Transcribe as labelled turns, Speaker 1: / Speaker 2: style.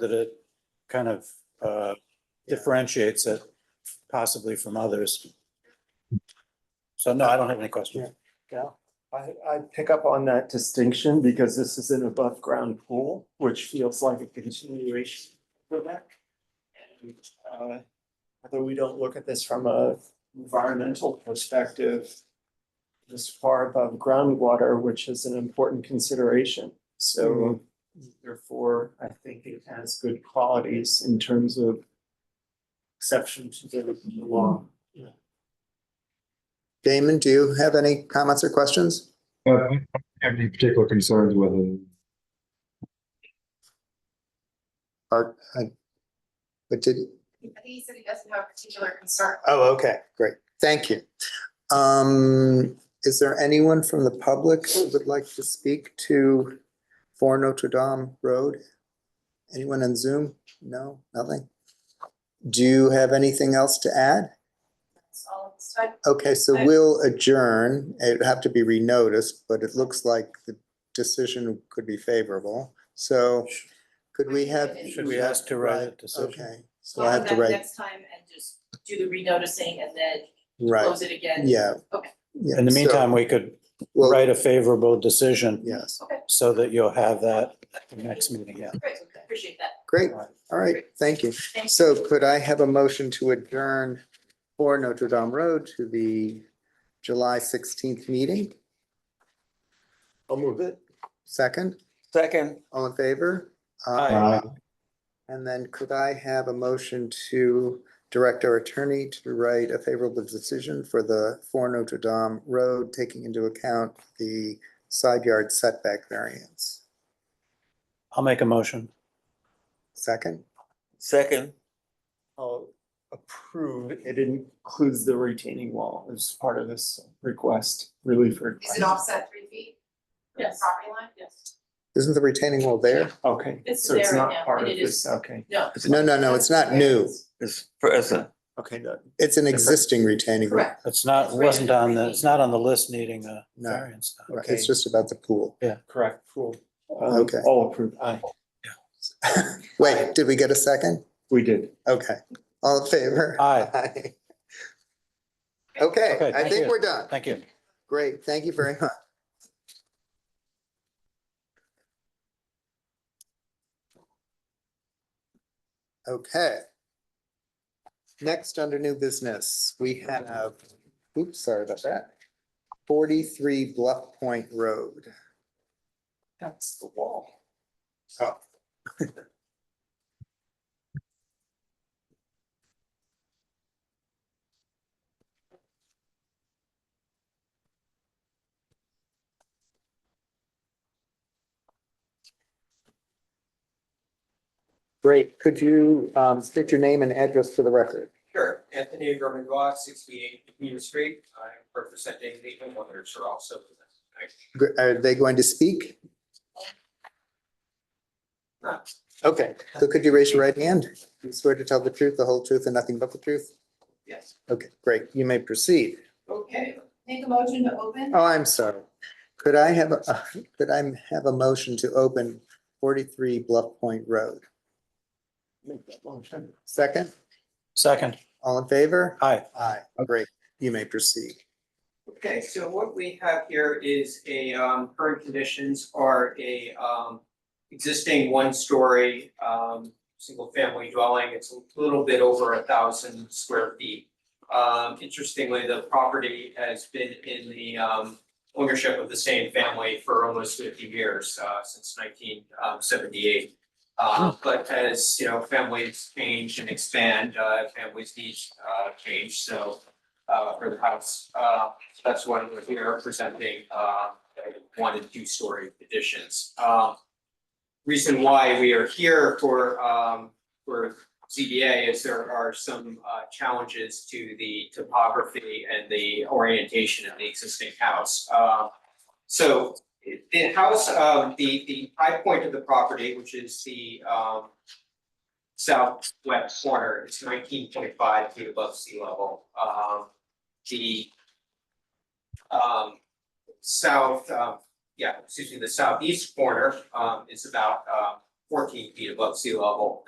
Speaker 1: so that it kind of uh, differentiates it possibly from others. So no, I don't have any questions.
Speaker 2: Yeah, I, I pick up on that distinction because this is an above ground pool, which feels like a continuation for that. And, uh, Although we don't look at this from a environmental perspective, this far above groundwater, which is an important consideration. So therefore, I think it has good qualities in terms of exception to the law.
Speaker 3: Damon, do you have any comments or questions?
Speaker 4: Uh, I don't Have any particular concerns with it?
Speaker 3: Or, I- but did,
Speaker 5: I think he said he doesn't have a particular concern.
Speaker 3: oh, okay, great, thank you. Um, is there anyone from the public who would like to speak to Four Notre Dame Road? Anyone on Zoom? No, nothing? Do you have anything else to add?
Speaker 5: That's all of this time.
Speaker 3: Okay, so
Speaker 5: I-
Speaker 3: we'll adjourn. It'd have to be renoticed, but it looks like the decision could be favorable. So could we have?
Speaker 1: Should we ask to write a decision?
Speaker 3: Okay, so I have to
Speaker 5: We'll
Speaker 3: write,
Speaker 5: that Next time and just do the renoticing and then
Speaker 3: right,
Speaker 5: close it again.
Speaker 3: yeah.
Speaker 5: Okay.
Speaker 3: Yeah,
Speaker 1: In the
Speaker 3: so
Speaker 1: meantime, we could
Speaker 3: we'll-
Speaker 1: write a favorable decision
Speaker 3: Yes,
Speaker 1: so that you'll have that at the next meeting, yeah.
Speaker 5: Great, appreciate that.
Speaker 3: great, all right, thank you.
Speaker 5: Thank
Speaker 3: So could I have a motion to adjourn for Notre Dame Road to the July sixteenth meeting?
Speaker 2: I'll move it.
Speaker 3: Second,
Speaker 6: Second,
Speaker 3: all in favor?
Speaker 1: Aye.
Speaker 3: And then could I have a motion to direct our attorney to write a favorable decision for the for Notre Dame Road, taking into account the side yard setback variance?
Speaker 1: I'll make a motion.
Speaker 3: Second,
Speaker 6: second,
Speaker 2: I'll approve, uh, it includes the retaining wall as part of this request, relief
Speaker 5: Is
Speaker 2: request.
Speaker 5: it offset three feet? from the
Speaker 7: Yes.
Speaker 5: Property line? Yes.
Speaker 3: isn't the retaining wall there?
Speaker 2: Okay,
Speaker 5: It's
Speaker 2: so it's
Speaker 5: there right
Speaker 2: not
Speaker 5: now,
Speaker 2: part of
Speaker 5: and it is-
Speaker 2: this, okay.
Speaker 5: No.
Speaker 3: No, no, no, it's not new.
Speaker 6: is present.
Speaker 2: Okay, that-
Speaker 3: It's an existing retaining wall.
Speaker 5: Correct.
Speaker 1: It's not, wasn't on the, it's not on the list needing a
Speaker 3: No.
Speaker 1: variance. no.
Speaker 3: Right, It's just about the pool.
Speaker 2: correct, cool. Um,
Speaker 3: Okay.
Speaker 2: All approved, aye,
Speaker 3: Wait, did we get a second?
Speaker 2: we did.
Speaker 3: Okay, all in favor?
Speaker 1: Aye.
Speaker 3: Aye. Okay,
Speaker 1: Okay,
Speaker 3: I
Speaker 1: thank
Speaker 3: think
Speaker 1: you.
Speaker 3: we're done.
Speaker 1: Thank you.
Speaker 3: Great, thank you very much. Okay. Next, under new business, we have, oops, sorry about that. Forty-three Bluff Point Road.
Speaker 2: That's the wall.
Speaker 3: Oh. Great, could you um, state your name and address for the record?
Speaker 8: Sure, Anthony Gorman Goff, sixty-eight Computer Street, I'm representing the homeowners who are also.
Speaker 3: Gr- Are they going to speak? Okay, so could you raise your right hand? You swear to tell the truth, the whole truth, and nothing but the truth?
Speaker 8: Yes,
Speaker 3: Okay, great. You may proceed.
Speaker 8: okay,
Speaker 5: Make a motion to open?
Speaker 3: Oh, I'm sorry. Could I have, a- could I have a motion to open forty-three Bluff Point Road?
Speaker 2: Make that motion.
Speaker 3: Second,
Speaker 1: Second,
Speaker 3: all in favor?
Speaker 1: aye.
Speaker 3: Aye, great. You may proceed.
Speaker 8: okay, so what we have here is a, um, current conditions are a, um, existing one-story, um, single-family dwelling, it's a little bit over a thousand square feet. Um, interestingly, the property has been in the, um, ownership of the same family for almost fifty years, uh, since nineteen, um, seventy-eight. Uh, but as, you know, families change and expand, uh, families needs, uh, change, so, uh, for the house, uh, that's why we're here presenting, uh, one and two story additions. Um, reason why we are here for, um, for ZBA is there are some, uh, challenges to the topography and the orientation of the existing house. Uh, so the house, um, the, the high point of the property, which is the, um, southwest corner, is nineteen point five feet above sea level. Um, the um, south, um, yeah, excuse me, the southeast corner, um, is about, um, fourteen feet above sea level.